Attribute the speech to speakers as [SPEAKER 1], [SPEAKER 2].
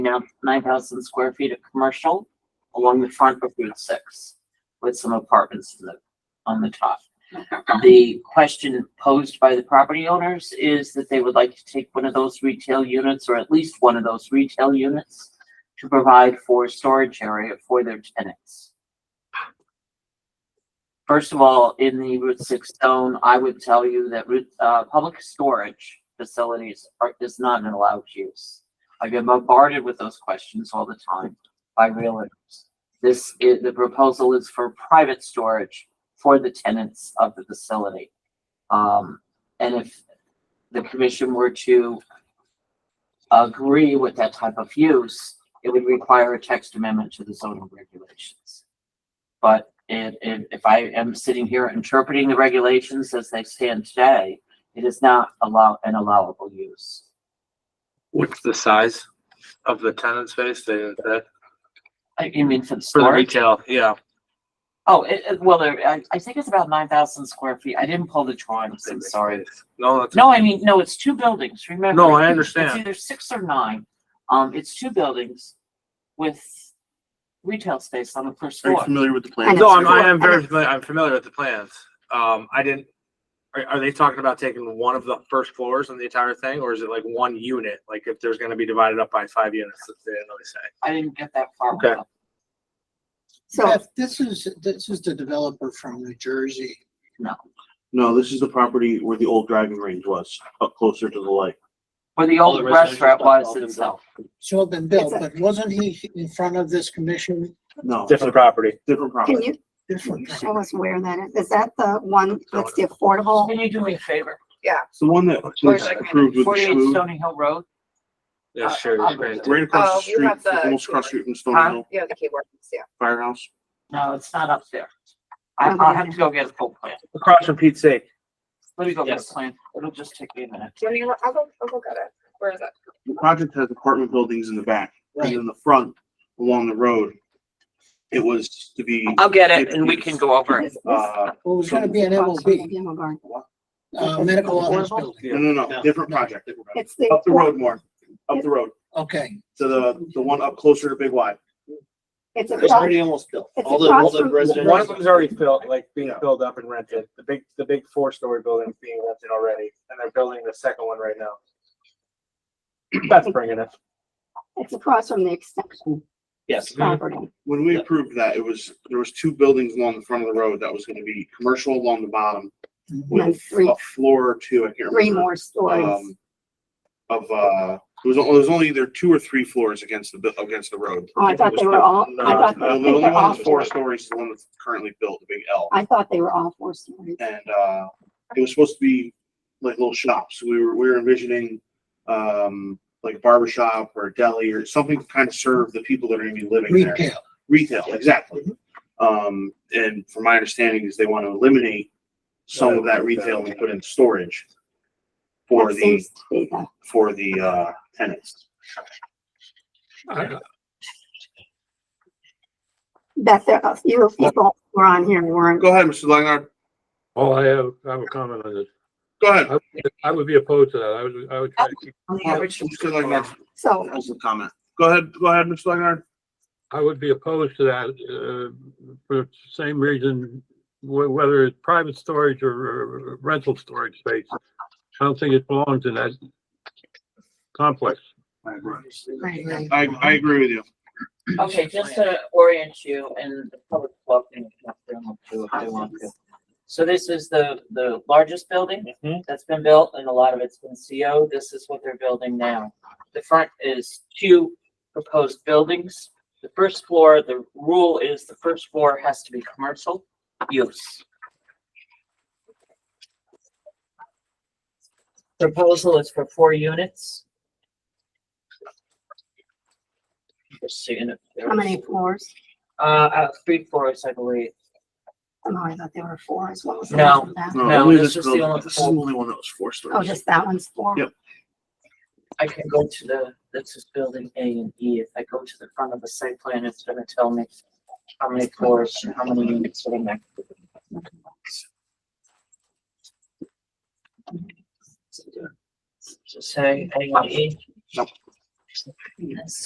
[SPEAKER 1] now nine thousand square feet of commercial along the front of Route Six with some apartments in the, on the top. The question posed by the property owners is that they would like to take one of those retail units or at least one of those retail units to provide for storage area for their tenants. First of all, in the Route Six zone, I would tell you that route, uh, public storage facilities are, is not an allowed use. I get bombarded with those questions all the time by realtors. This is, the proposal is for private storage for the tenants of the facility. Um, and if the commission were to agree with that type of use, it would require a text amendment to the zoning regulations. But it, it, if I am sitting here interpreting the regulations as they stand today, it is not allow, an allowable use.
[SPEAKER 2] What's the size of the tenant space? They, that,
[SPEAKER 1] I, you mean for the
[SPEAKER 2] for the
[SPEAKER 1] storage?
[SPEAKER 2] retail, yeah.
[SPEAKER 1] Oh, it, it, well, there- I, I think it's about nine thousand square feet. I didn't pull the drawings, I'm sorry.
[SPEAKER 2] No, that's.
[SPEAKER 1] No, I mean, no, it's two buildings, remember?
[SPEAKER 2] No, I
[SPEAKER 1] It's
[SPEAKER 2] understand.
[SPEAKER 1] either six or nine. Um, it's two buildings with retail space on the first
[SPEAKER 3] Are you
[SPEAKER 1] floor.
[SPEAKER 3] familiar with the
[SPEAKER 4] I
[SPEAKER 3] plan?
[SPEAKER 4] know.
[SPEAKER 2] No, I'm,
[SPEAKER 4] I
[SPEAKER 2] I am very
[SPEAKER 4] know.
[SPEAKER 2] familiar, I'm familiar with the plans. Um, I didn't, are, are they talking about taking one of the first floors on the entire thing, or is it like one unit? Like if there's gonna be divided up by five units, that's they didn't really say.
[SPEAKER 1] I didn't get that far.
[SPEAKER 2] Okay.
[SPEAKER 4] So,
[SPEAKER 5] Beth, this is, this is the developer from New Jersey.
[SPEAKER 3] No, this is the property where the old driving range was, up closer to the lake.
[SPEAKER 1] Where the
[SPEAKER 3] All
[SPEAKER 1] old
[SPEAKER 3] the residential
[SPEAKER 1] restaurant was
[SPEAKER 3] stuff all been
[SPEAKER 1] itself.
[SPEAKER 5] It's all been built,
[SPEAKER 4] It's
[SPEAKER 5] but wasn't he in front of this commission?
[SPEAKER 3] No,
[SPEAKER 2] Different property.
[SPEAKER 3] different
[SPEAKER 4] can
[SPEAKER 3] property.
[SPEAKER 4] you
[SPEAKER 5] Different.
[SPEAKER 4] show us where that is? Is that the one that's the affordable?
[SPEAKER 1] Can you do me a favor?
[SPEAKER 3] It's the one that was approved with the
[SPEAKER 1] Forty-eight
[SPEAKER 3] schmoo,
[SPEAKER 1] Stony Hill Road?
[SPEAKER 2] Yeah,
[SPEAKER 1] Uh,
[SPEAKER 2] sure.
[SPEAKER 1] I'll-
[SPEAKER 3] right
[SPEAKER 6] Oh,
[SPEAKER 3] across the
[SPEAKER 6] you
[SPEAKER 3] street,
[SPEAKER 6] have the-
[SPEAKER 3] almost across the street from
[SPEAKER 1] Huh?
[SPEAKER 3] Stone Hill
[SPEAKER 6] Yeah, the keywords, yeah.
[SPEAKER 3] Firehouse.
[SPEAKER 1] No, it's not up there. I, I'll have to go get a full plan.
[SPEAKER 2] Across from Pete's sake.
[SPEAKER 1] Let me go get a
[SPEAKER 2] Yes.
[SPEAKER 1] plan. It'll just take me a minute.
[SPEAKER 6] Do you want me to- I'll go, I'll go get it. Where is it?
[SPEAKER 3] The project has apartment buildings in the back and in the front along the road. It was to be,
[SPEAKER 1] I'll get
[SPEAKER 3] it and we can
[SPEAKER 1] go over
[SPEAKER 4] Is- is-
[SPEAKER 3] uh,
[SPEAKER 5] Well, it was gonna be an MOB,
[SPEAKER 4] Demo Garden.
[SPEAKER 5] uh, medical office building.
[SPEAKER 3] no, no, no, different project.
[SPEAKER 4] It's the.
[SPEAKER 3] Up the road more, up the road
[SPEAKER 5] Okay,
[SPEAKER 3] to the, the one up closer to Big Y.
[SPEAKER 4] It's a,
[SPEAKER 3] almost built.
[SPEAKER 4] It's All the- all the across from- residential-
[SPEAKER 2] One of them's already filled, like being
[SPEAKER 3] Yeah.
[SPEAKER 2] filled up and rented. The big, the big four-story building's being rented already, and they're building the second one right now. That's bringing it.
[SPEAKER 4] it's across from the extension
[SPEAKER 3] Mm-hmm.
[SPEAKER 2] Yes.
[SPEAKER 4] property.
[SPEAKER 3] When we approved that, it was, there was two buildings along the front of the road that was gonna be commercial along the bottom
[SPEAKER 4] And
[SPEAKER 3] with
[SPEAKER 4] three-
[SPEAKER 3] a floor or two, I can't remember.
[SPEAKER 4] Three more stories.
[SPEAKER 3] um, Of, uh, it was, it was ononly either two or three floors against the, bu- against the road.
[SPEAKER 4] Oh, I thought they were all, I thought,
[SPEAKER 3] The
[SPEAKER 4] I
[SPEAKER 3] only
[SPEAKER 4] think
[SPEAKER 3] one
[SPEAKER 4] they're all,
[SPEAKER 3] that's four
[SPEAKER 4] four-
[SPEAKER 3] stories is the one that's currently built, the big L.
[SPEAKER 4] I thought they were all four stories.
[SPEAKER 3] And, uh, it was supposed to be like little shops. We were, we were envisioning, um, like a barber shop or a deli or something to kind of serve the people that are gonna be living there
[SPEAKER 5] retail.
[SPEAKER 3] retail, exactly. Um, and from my understanding is they want to eliminate some of that retail and put in storage for
[SPEAKER 4] That
[SPEAKER 3] the,
[SPEAKER 4] seems to be the,
[SPEAKER 3] for the, uh, tenants.
[SPEAKER 4] that there, a few people were on here and weren't.
[SPEAKER 3] Go ahead, Mr. Langar.
[SPEAKER 7] Oh, I have, I have a comment on this.
[SPEAKER 3] Go ahead.
[SPEAKER 7] I, would- I would be opposed to that. I would, I would try to keep,
[SPEAKER 3] Mr. Langar,
[SPEAKER 4] So
[SPEAKER 3] has a comment. Go ahead, go ahead, Mr. Langar.
[SPEAKER 7] I would be opposed to that, uh, for the same reason, wh- whether it's private storage or uh, rental storage space. I don't think it belongs in that complex.
[SPEAKER 4] Right.
[SPEAKER 3] I, I agree with you.
[SPEAKER 1] Okay, just to orient you and the public welcome if they want to, if they want to. So this is the, the largest building that's been built and a lot of it's been CO. This is what they're building now. The front is two proposed buildings. The first floor, the rule is the first floor has to be commercial use. Proposal is for four units. Just seeing if there
[SPEAKER 4] how
[SPEAKER 1] was-
[SPEAKER 4] many floors?
[SPEAKER 1] uh, uh, three floors, I believe.
[SPEAKER 4] Oh, I thought there were four as well. as
[SPEAKER 1] No.
[SPEAKER 4] that.
[SPEAKER 1] No,
[SPEAKER 3] only
[SPEAKER 1] this was the
[SPEAKER 3] building-
[SPEAKER 1] only
[SPEAKER 3] This is the only one that was four
[SPEAKER 4] Oh,
[SPEAKER 3] stories.
[SPEAKER 4] just that one's four?
[SPEAKER 3] Yep.
[SPEAKER 1] I can go to the, this is building A and E. If I go to the front of the site plan, it's gonna tell me how many floors and how many units are in there. Does it Say A and E?
[SPEAKER 3] Nope.
[SPEAKER 1] Yes.